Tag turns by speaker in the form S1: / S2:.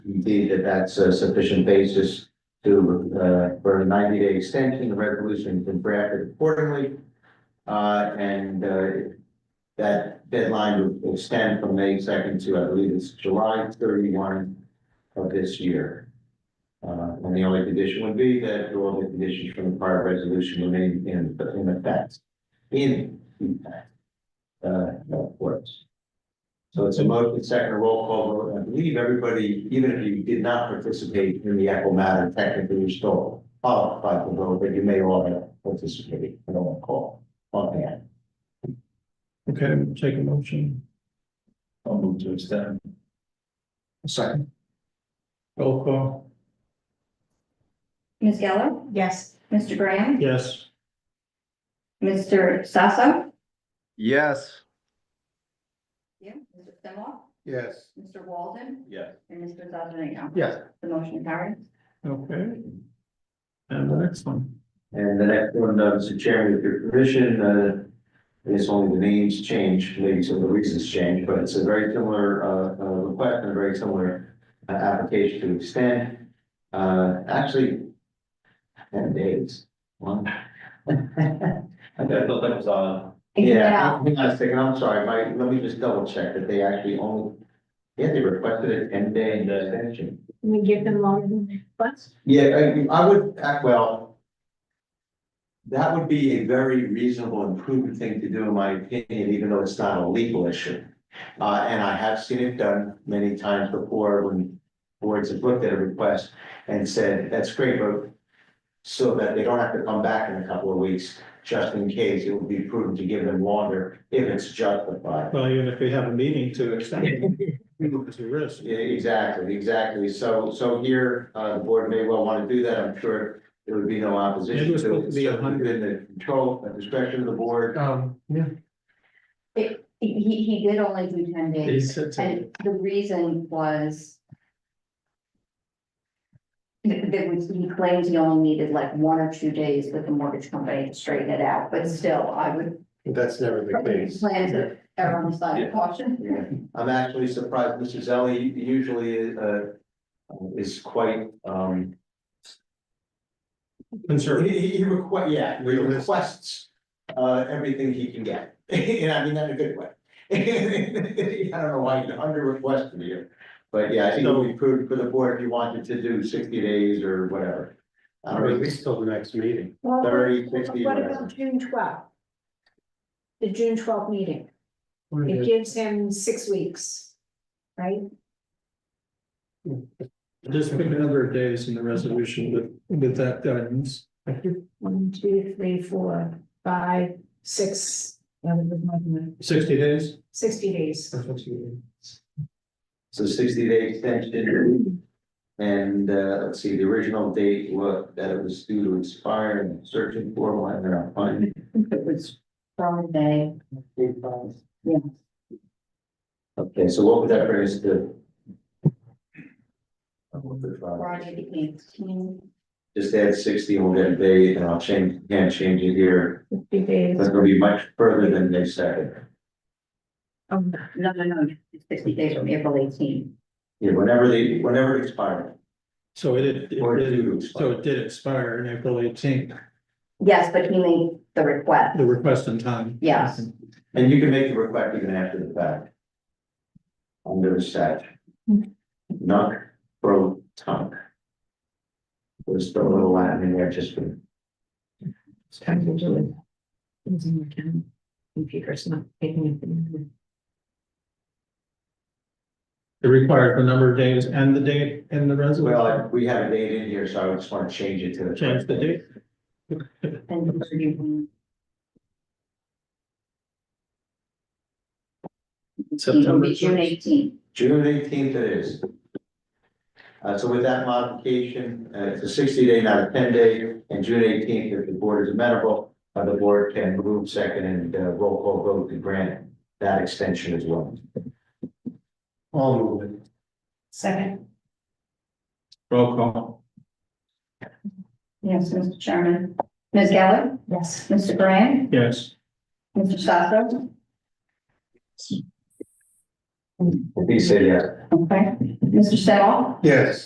S1: indeed that that's a sufficient basis to, uh, for a ninety day extension, the resolution has been drafted accordingly. Uh, and, uh, that deadline would extend from May second to, I believe it's July thirty-one of this year. Uh, and the only condition would be that all the conditions from the prior resolution remain in, in effect. In, effect. Uh, of course. So it's a motion, second, a roll call vote. I believe everybody, even if you did not participate in the Echo matter, technically you're still qualified to vote, but you may all have participated in the call on hand.
S2: Okay, we'll take a motion.
S3: I'll move to extend.
S2: Second. Roll call.
S4: Ms. Geller,
S5: Yes.
S4: Mr. Graham,
S2: Yes.
S4: Mr. Sasso.
S6: yes,
S4: Yeah. Mr. Simoff,
S1: Yes.
S4: Mr. Walden,
S3: Yeah.
S4: and Mr. Zazarino.
S2: Yes.
S4: The motion carries.
S2: Okay. And the next one.
S1: And the next one, uh, Mr. Chairman, with your permission, uh, it's only the names change, maybe some of the reasons change, but it's a very similar, uh, uh, request and a very similar uh, application to extend, uh, actually, ten days, one.
S3: I thought that was on.
S1: Yeah, hang on a second, I'm sorry, Mike, let me just double check that they actually only, yeah, they requested a ten day extension.
S5: We give them longer than their request.
S1: Yeah, I, I would, uh, well. That would be a very reasonable and prudent thing to do, in my opinion, even though it's not a legal issue. Uh, and I have seen it done many times before when boards have looked at a request and said, that's great, but. So that they don't have to come back in a couple of weeks, just in case, it would be prudent to give them longer if it's justified.
S2: Well, even if we have a meeting to extend, it, it's a risk.
S1: Yeah, exactly, exactly. So, so here, uh, the board may well want to do that. I'm sure there would be no opposition.
S2: It was supposed to be a hundred.
S1: In the control, at discretion of the board.
S2: Um, yeah.
S4: He, he did only do ten days,
S2: It's, it's, a-
S4: and the reason was that, that was- he claims he only needed like one or two days with the mortgage company to straighten it out, but still, I would
S7: That's never the case.
S4: plan to err on the side of caution.
S1: Yeah. I'm actually surprised, Mr. Zelli usually, uh, is quite, um,
S2: concern.
S1: he, he requests, yeah, he requests, uh, everything he can get. And I mean that in a good way. I don't know why you under requested here, but yeah, I think it would be prudent for the board if you wanted to do sixty days or whatever. I
S7: Or
S1: don't
S7: at
S1: know.
S7: least till the next meeting.
S5: Well,
S1: 30, 60,
S5: What
S1: whatever.
S5: about June twelfth? The June twelfth meeting, it
S2: We're good.
S5: gives him six weeks, right?
S2: Just pick a number of days in the resolution with, with that guidance.
S5: One, two, three, four, five, six,
S2: Sixty days?
S5: sixty days.
S1: So sixty day extension. And uh, let's see, the original date was that it was due to expire and I'm searching for one and I'm finding.
S4: It was Friday. Yeah.
S1: Okay, so what would that bring us to?
S4: Friday the eighteenth,
S1: Just add sixty on that day and I'll change, again, change it here.
S5: Fifty days.
S1: That's gonna be much further than they said.
S5: Um,
S4: no, no, no, it's sixty days from April eighteenth.
S1: Yeah, whenever they, whenever it expired.
S2: So it, it
S1: Or due
S2: did,
S1: to
S2: so
S1: expire.
S2: it did expire in April eighteenth,
S4: Yes, but he made the request.
S2: the request in time.
S4: Yes.
S1: And you can make the request even after the fact. Under the statute. Knock, pro, tongue. There's a little Latin in there just for.
S8: It's time to do it. It's in your account. Computer's not taking it.
S2: It required the number of days and the date in the resolution.
S1: Well, we have a date in here, so I just want to change it to the.
S2: Change the date.
S4: And you- It would
S2: September
S4: be June
S2: first.
S4: eighteenth.
S1: June eighteenth it is. Uh, so with that modification, uh, it's a sixty day, not a ten day, and June eighteenth, if the board is amenable, uh, the board can move second and uh, roll call vote to grant that extension as well.
S7: I'll move it.
S5: Second,
S2: Roll call.
S4: Yes, Mr. Chairman. Ms. Geller,
S5: yes.
S4: Mr. Graham,
S2: Yes.
S4: Mr. Sasso.
S1: He said yes.
S4: Okay, Mr. Senoff?
S7: Yes.